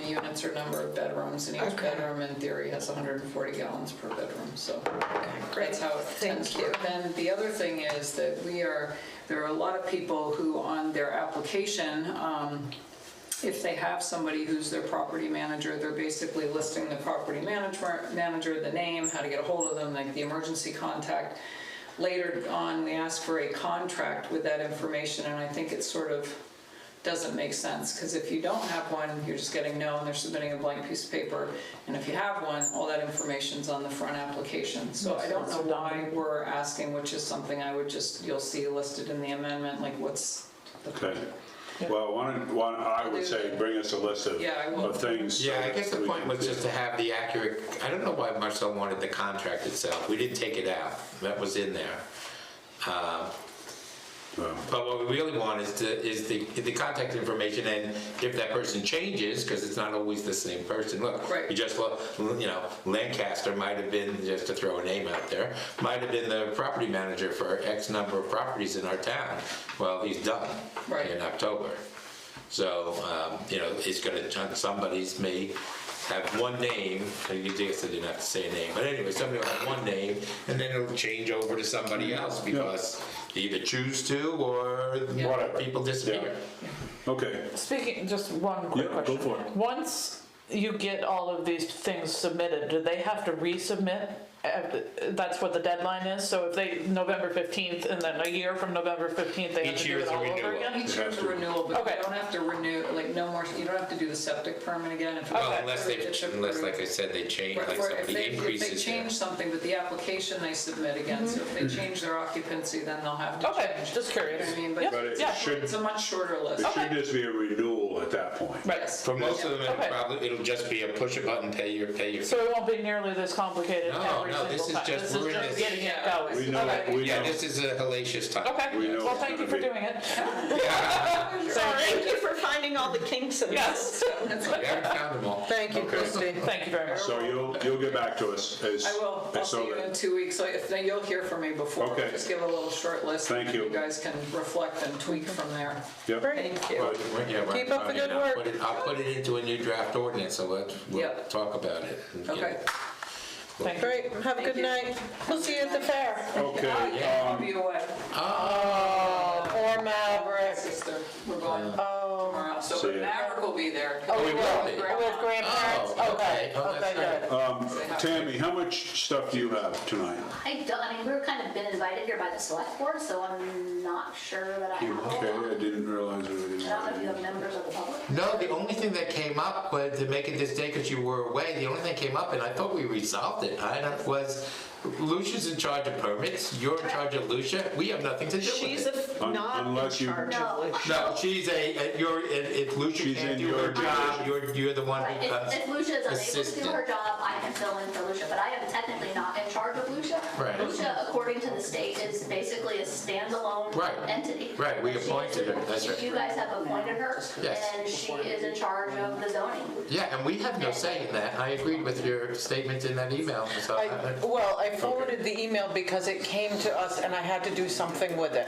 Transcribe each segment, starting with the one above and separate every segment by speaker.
Speaker 1: units or number of bedrooms, and each
Speaker 2: Okay.
Speaker 1: bedroom in theory has 140 gallons per bedroom, so.
Speaker 2: Great.
Speaker 1: That's how it
Speaker 2: Thank
Speaker 1: tends to work.
Speaker 2: you.
Speaker 1: Then the other thing is that we are, there are a lot of people who on their application, um, if they have somebody who's their property manager, they're basically listing the property manager, manager, the name, how to get a hold of them, like the emergency contact. Later on, we ask for a contract with that information, and I think it sort of doesn't make sense, because if you don't have one, you're just getting no, and they're submitting a blank piece of paper. And if you have one, all that information's on the front application. So I don't know why we're asking, which is something I would just, you'll see listed in the amendment, like what's the
Speaker 3: Okay. Well, one, one, I would say bring us a list of,
Speaker 1: Yeah, I will.
Speaker 3: of things.
Speaker 4: Yeah, I guess the
Speaker 3: we
Speaker 4: point
Speaker 3: can
Speaker 4: was
Speaker 3: do.
Speaker 4: just to have the accurate, I don't know why Marcel wanted the contract itself. We didn't take it out. That was in there. Um,
Speaker 3: Well,
Speaker 4: But what we really want is to, is the, the contact information and if that person changes, because it's not always the same person, look.
Speaker 1: Right.
Speaker 4: You just, lo- you know, Lancaster might have been, just to throw a name out there, might have been the property manager for X number of properties in our town. Well, he's done
Speaker 1: Right.
Speaker 4: in October. So, um, you know, it's gonna, somebody's may have one name, I guess they didn't have to say a name, but anyway, somebody will have one name and then it'll change over to somebody else because they either choose to or
Speaker 3: Whatever.
Speaker 4: people disappear.
Speaker 3: Okay,
Speaker 2: Speaking, just one quick
Speaker 3: Yeah, go
Speaker 2: question.
Speaker 3: for it.
Speaker 2: Once you get all of these things submitted, do they have to resubmit? Uh, That's what the deadline is. So if they November fifteenth, and then a year from November fifteenth, they have
Speaker 4: Each
Speaker 2: to
Speaker 4: year
Speaker 2: do it
Speaker 4: is a
Speaker 2: all over
Speaker 4: renewal.
Speaker 2: again.
Speaker 1: Each year's a renewal, but
Speaker 2: Okay.
Speaker 1: you don't have to renew, like, no more, you don't have to do the septic permit again. if
Speaker 4: Well,
Speaker 1: it's
Speaker 4: unless
Speaker 1: approved,
Speaker 4: they,
Speaker 1: it's
Speaker 4: unless,
Speaker 1: approved.
Speaker 4: like I said, they change,
Speaker 1: Right,
Speaker 4: like
Speaker 1: for- if they-
Speaker 4: somebody
Speaker 1: If they
Speaker 4: increases their.
Speaker 1: change something, but the application they submit again, so if they
Speaker 3: Mm-hmm.
Speaker 1: change their occupancy, then they'll have to change.
Speaker 2: Okay, just curious.
Speaker 1: I mean, but-
Speaker 2: Yep,
Speaker 3: but it
Speaker 2: yeah.
Speaker 3: should,
Speaker 1: It's a much shorter list.
Speaker 3: it should just be a renewal at that point.
Speaker 2: Right.
Speaker 1: Yes.
Speaker 4: For most of them, it'll
Speaker 2: Okay.
Speaker 4: probably, it'll just be a push a button, pay your, pay your.
Speaker 2: So it won't be nearly this complicated
Speaker 4: No,
Speaker 2: every
Speaker 4: no, this
Speaker 2: single
Speaker 4: is
Speaker 2: time.
Speaker 4: just-
Speaker 2: This is
Speaker 4: we're in
Speaker 2: just
Speaker 4: this-
Speaker 2: getting it going.
Speaker 3: We know,
Speaker 2: Okay.
Speaker 3: we
Speaker 4: Yeah,
Speaker 3: know.
Speaker 4: this is a hellacious time.
Speaker 2: Okay,
Speaker 3: we know
Speaker 2: well,
Speaker 3: it's
Speaker 2: thank you
Speaker 3: gonna
Speaker 2: for
Speaker 3: be-
Speaker 2: doing it.
Speaker 5: Thank
Speaker 2: Sorry.
Speaker 5: you for finding all the kinks in this.
Speaker 2: Yes,
Speaker 4: We haven't found them all.
Speaker 5: Thank you,
Speaker 3: Okay.
Speaker 5: Christie.
Speaker 2: thank you very much.
Speaker 3: So you'll, you'll get back to us as.
Speaker 1: I will, I'll
Speaker 3: as so
Speaker 1: see you
Speaker 3: that-
Speaker 1: in two weeks, so if, then you'll hear from me before.
Speaker 3: Okay.
Speaker 1: Just give a little short list. and
Speaker 3: Thank you.
Speaker 1: You guys can reflect and tweak from there.
Speaker 3: Yep.
Speaker 5: Thank you. Keep up the good work.
Speaker 4: I'll put it into a new draft ordinance, so let's, we'll
Speaker 1: Yep.
Speaker 4: talk about it. and get
Speaker 1: Okay.
Speaker 4: it.
Speaker 2: Thank you.
Speaker 5: Great, have a good night. We'll see you at the fair.
Speaker 3: Okay, um,
Speaker 1: I'll be away.
Speaker 4: Oh,
Speaker 5: Or Maverick.
Speaker 1: Sister, we're going
Speaker 5: Oh,
Speaker 1: tomorrow, so
Speaker 3: See ya.
Speaker 1: Maverick will be there.
Speaker 5: Oh,
Speaker 4: we will be.
Speaker 5: We're with grandparents?
Speaker 4: Oh, okay. Oh,
Speaker 5: Okay,
Speaker 4: that's
Speaker 5: good.
Speaker 3: um, Tammy, how much stuff do you have tonight?
Speaker 6: I don't, I mean, we've kind of been invited here by the select board, so I'm not sure that I have. a whole
Speaker 3: Okay,
Speaker 6: lot.
Speaker 3: I didn't realize we
Speaker 6: I don't know if you have
Speaker 3: didn't.
Speaker 6: members of the public.
Speaker 4: No, the only thing that came up was to make it this day because you were away. The only thing that came up, and I thought we resolved it. I don't, was Lucia's in charge of permits. You're in charge of Lucia. We have nothing to do
Speaker 5: She's
Speaker 4: with it.
Speaker 5: a-
Speaker 3: Un-
Speaker 5: not in
Speaker 3: unless you-
Speaker 5: charge of
Speaker 6: No.
Speaker 5: Lucia.
Speaker 4: no, she's a. a- You're. If if Lucia
Speaker 3: She's in
Speaker 4: can't do
Speaker 3: your
Speaker 4: her job,
Speaker 3: division.
Speaker 4: you're you're the one
Speaker 6: Right,
Speaker 4: who comes.
Speaker 6: if, if Lucia is unable to
Speaker 4: assistant.
Speaker 6: do her job, I can fill in for Lucia, but I am technically not in charge of Lucia.
Speaker 4: Right.
Speaker 6: Lucia, according to the state, is basically a standalone
Speaker 4: Right.
Speaker 6: entity.
Speaker 4: Right, we
Speaker 6: She is-
Speaker 4: appointed her, that's right.
Speaker 6: You guys have appointed her,
Speaker 4: Yes.
Speaker 6: and she is in charge of the zoning.
Speaker 4: Yeah, and we have no say in that. I agreed with your statement in that email. So
Speaker 5: I- Well, I forwarded the email because it came to us and I had to do something with it.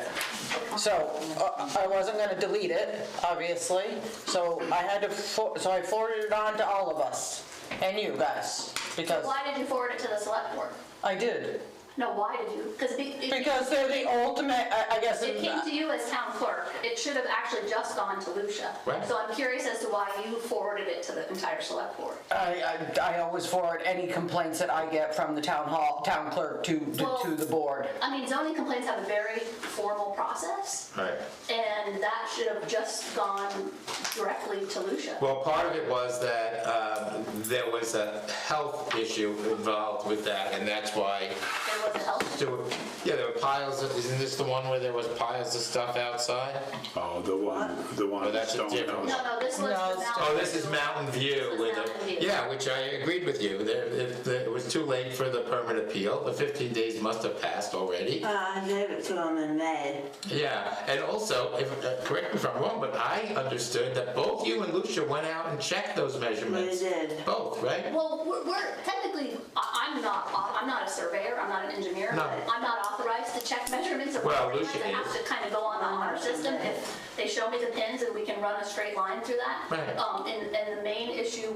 Speaker 5: So uh, I wasn't gonna delete it, obviously, so I had to, fo- so I forwarded it on to all of us and you guys, because
Speaker 6: Why did you forward it to the select board?
Speaker 5: I did.
Speaker 6: No, why did you? Because be. it-
Speaker 5: Because they're the ultimate, I I guess.
Speaker 6: It came to you as town clerk. It should have actually just gone to Lucia.
Speaker 4: Right.
Speaker 6: So I'm curious as to why you forwarded it to the entire select board.
Speaker 5: I, I, I always forward any complaints that I get from the town hall, town clerk to, to to the board.
Speaker 6: I mean, zoning complaints have a very formal process,
Speaker 4: Right.
Speaker 6: and that should have just gone directly to Lucia.
Speaker 4: Well, part of it was that um, there was a health issue involved with that, and that's why
Speaker 6: There was a health.
Speaker 4: there were, yeah, there were piles of, isn't this the one where there was piles of stuff outside?
Speaker 6: Um,
Speaker 3: Oh, the one, the one
Speaker 4: Oh,
Speaker 3: at
Speaker 4: that's a
Speaker 3: Stonehouse.
Speaker 4: different
Speaker 6: No, no, this
Speaker 5: No,
Speaker 6: was the
Speaker 5: it's-
Speaker 6: mountain.
Speaker 4: Oh, this is Mountain View
Speaker 6: This was
Speaker 4: with
Speaker 6: Mountain
Speaker 4: it,
Speaker 6: View.
Speaker 4: yeah, which I agreed with you. There, it, it was too late for the permit appeal. The 15 days must have passed already.
Speaker 7: Uh, I gave it to him in May.
Speaker 4: Yeah, and also, if, uh, correct me if I'm wrong, but I understood that both you and Lucia went out and checked those measurements.
Speaker 7: did.
Speaker 4: Both, right?
Speaker 6: Well, we're, we're technically, I- I'm not, au- I'm not a surveyor, I'm not an engineer.
Speaker 4: No.
Speaker 6: I'm not authorized to check measurements of
Speaker 4: Well,
Speaker 6: property lines.
Speaker 4: Lucia
Speaker 6: I have
Speaker 4: is.
Speaker 6: to kind of go on the honor system. If they show me the pins and we can run a straight line through that.
Speaker 4: Right.
Speaker 6: Um, and, and the main issue